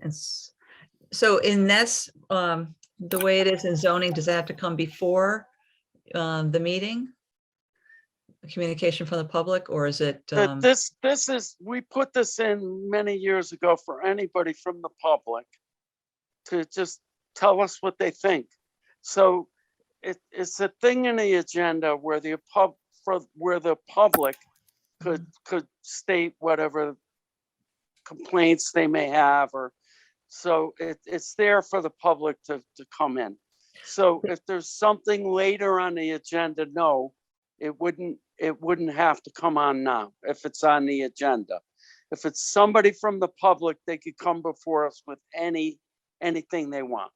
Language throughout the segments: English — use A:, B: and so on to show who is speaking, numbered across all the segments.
A: It's, so in this, um, the way it is in zoning, does that have to come before, um, the meeting? Communication from the public, or is it,
B: But
A: um,
B: Uh, this, this is, we put this in many years ago for anybody from the public to just tell us what they think. So it, it's a thing in the agenda where the pub, for, where the public could, could state whatever complaints they may have or, so it, it's there for the public to, to come in. So if there's something later on the agenda, no, it wouldn't, it wouldn't have to come on now if it's on the agenda. If it's somebody from the public, they could come before us with any, anything they want.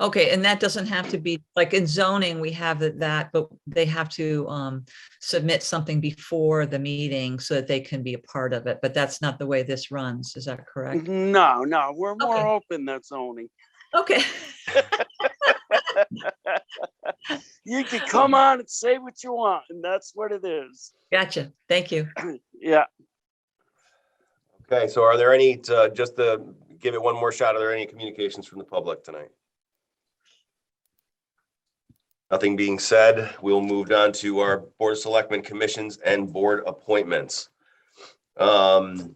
A: okay, and that doesn't have to be, like in zoning, we have that- that, but they have to, um, submit something before the meeting so that they can be a part of it, but that's not the way this runs, is that correct?
B: No, no, we're more
A: Okay.
B: open than zoning. Mm-hmm.
A: Okay,
B: You can come on and say what you want, and that's what it is.
A: gotcha, thank you.
B: Yeah,
C: Okay, so are there any, uh, just to give it one more shot, are there any communications from the public tonight? Nothing being said, we'll move on to our Board of Selectmen commissions and board appointments. Um,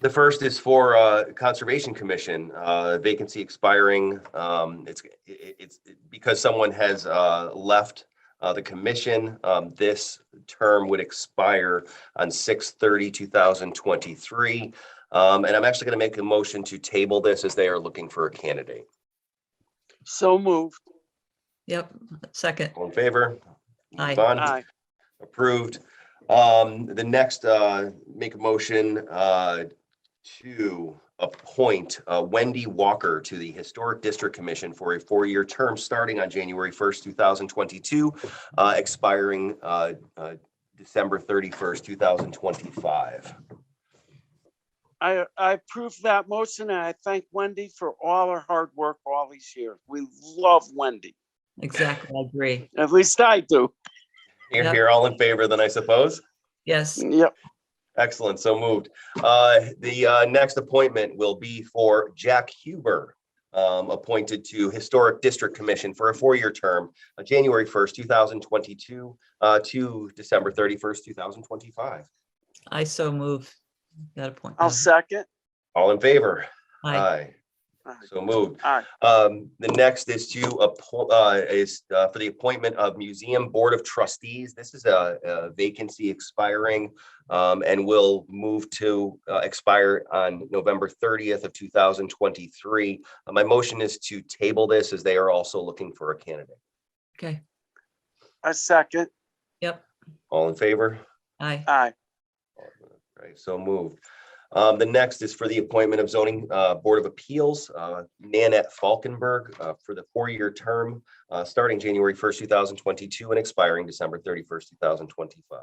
C: The first is for uh, Conservation Commission, uh, vacancy expiring. um, It's, it- it's because someone has uh, left uh, the commission, um, this term would expire on 2023, Um, and I'm actually gonna make a motion to table this as they are looking for a candidate.
B: so moved.
A: Yep, second,
C: All in favor?
A: Aye.
C: Yvonne?
B: Aye.
C: Approved. Um, the next, uh, make a motion, uh, to appoint uh, Wendy Walker to the Historic District Commission for a four-year term starting on January first, two thousand twenty-two, uh, expiring, uh, uh, December thirty-first, two thousand twenty-five.
B: I, I approve that motion and I thank Wendy for all her hard work all these years. We love Wendy.
A: exactly, I agree,
B: At least I do.
C: You're,
A: Yep.
C: you're all in favor then, I suppose?
A: yes.
B: Yep,
C: Excellent, so moved. Uh, The uh, next appointment will be for Jack Huber, um, appointed to Historic District Commission for a four-year term, uh, January 1st, 2022 uh, to December 31st, 2025.
A: I so move that appointment.
B: I'll uh, second.
C: All in favor?
A: Aye.
B: Aye.
C: So moved.
B: Aye.
C: Um, the next is to, appo- uh, is, uh, for the appointment of Museum Board of Trustees. This is a, a vacancy expiring, um, and will move to, uh, expire on November thirtieth of two thousand twenty-three. Uh, My motion is to table this as they are also looking for a candidate.
A: Okay,
B: I second.
C: All in favor?
A: aye,
B: Aye.
C: Right, so moved. Um, the next is for the appointment of zoning, uh, Board of Appeals, uh, Nanette Falkenberg, uh, for the four-year term, uh, starting January first, two thousand twenty-two and expiring December thirty-first, two thousand twenty-five.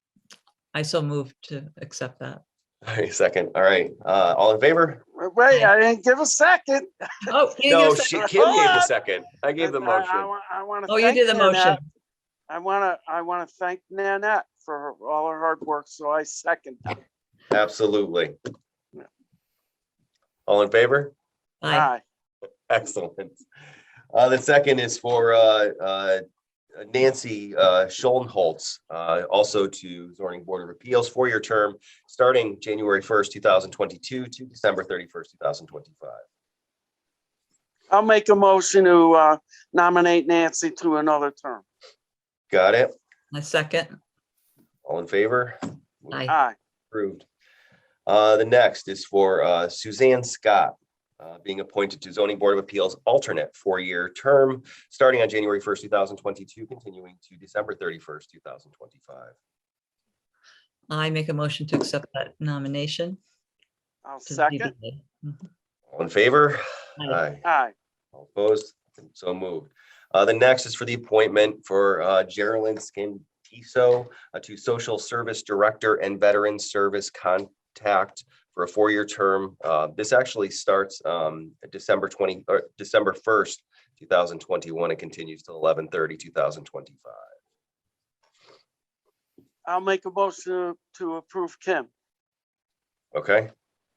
A: I so move to accept that.
C: All right, second, all right, uh, all in favor?
B: Wait, I didn't give a second.
A: Oh, you didn't
C: No,
A: give a
C: she,
A: sec-
C: Kim
B: second.
C: gave the
B: Hold on.
C: second. I gave the
B: And I- I
C: motion.
B: wa- I want to.
A: oh, you did the motion.
B: I want to, I want to thank Nanette for her- all her hard work, so I second. that.
C: Absolutely. All in favor? Ah.
A: Aye,
B: Aye.
C: Excellent. Uh, the second is for, uh, uh, Nancy, uh, Schoenholz, uh, also to zoning board of appeals, four-year term, starting January first, two thousand twenty-two to December thirty-first, two thousand twenty-five.
B: I'll make a motion to uh, nominate Nancy to another term.
C: Got it?
A: I second,
C: All in favor? Ah.
A: aye,
B: Aye.
C: Approved. Uh, the next is for, uh, Suzanne Scott, uh, being appointed to zoning board of appeals alternate four-year term, starting on January first, two thousand twenty-two, continuing to December thirty-first, two thousand twenty-five.
A: I make a motion to accept that nomination.
B: I'll
A: to
B: second.
A: ZBA. Mhm.
C: All in favor?
A: Aye.
C: Aye.
B: Aye.
C: All opposed? So moved. Uh, the next is for the appointment for, uh, Geraldine Scantiso uh, to Social Service Director and Veteran Service Contact for a four-year term. Uh, this actually starts, um, December twenty, or December first, two thousand twenty-one, and continues till 2025.
B: I'll make a motion to approve Kim.
C: Okay,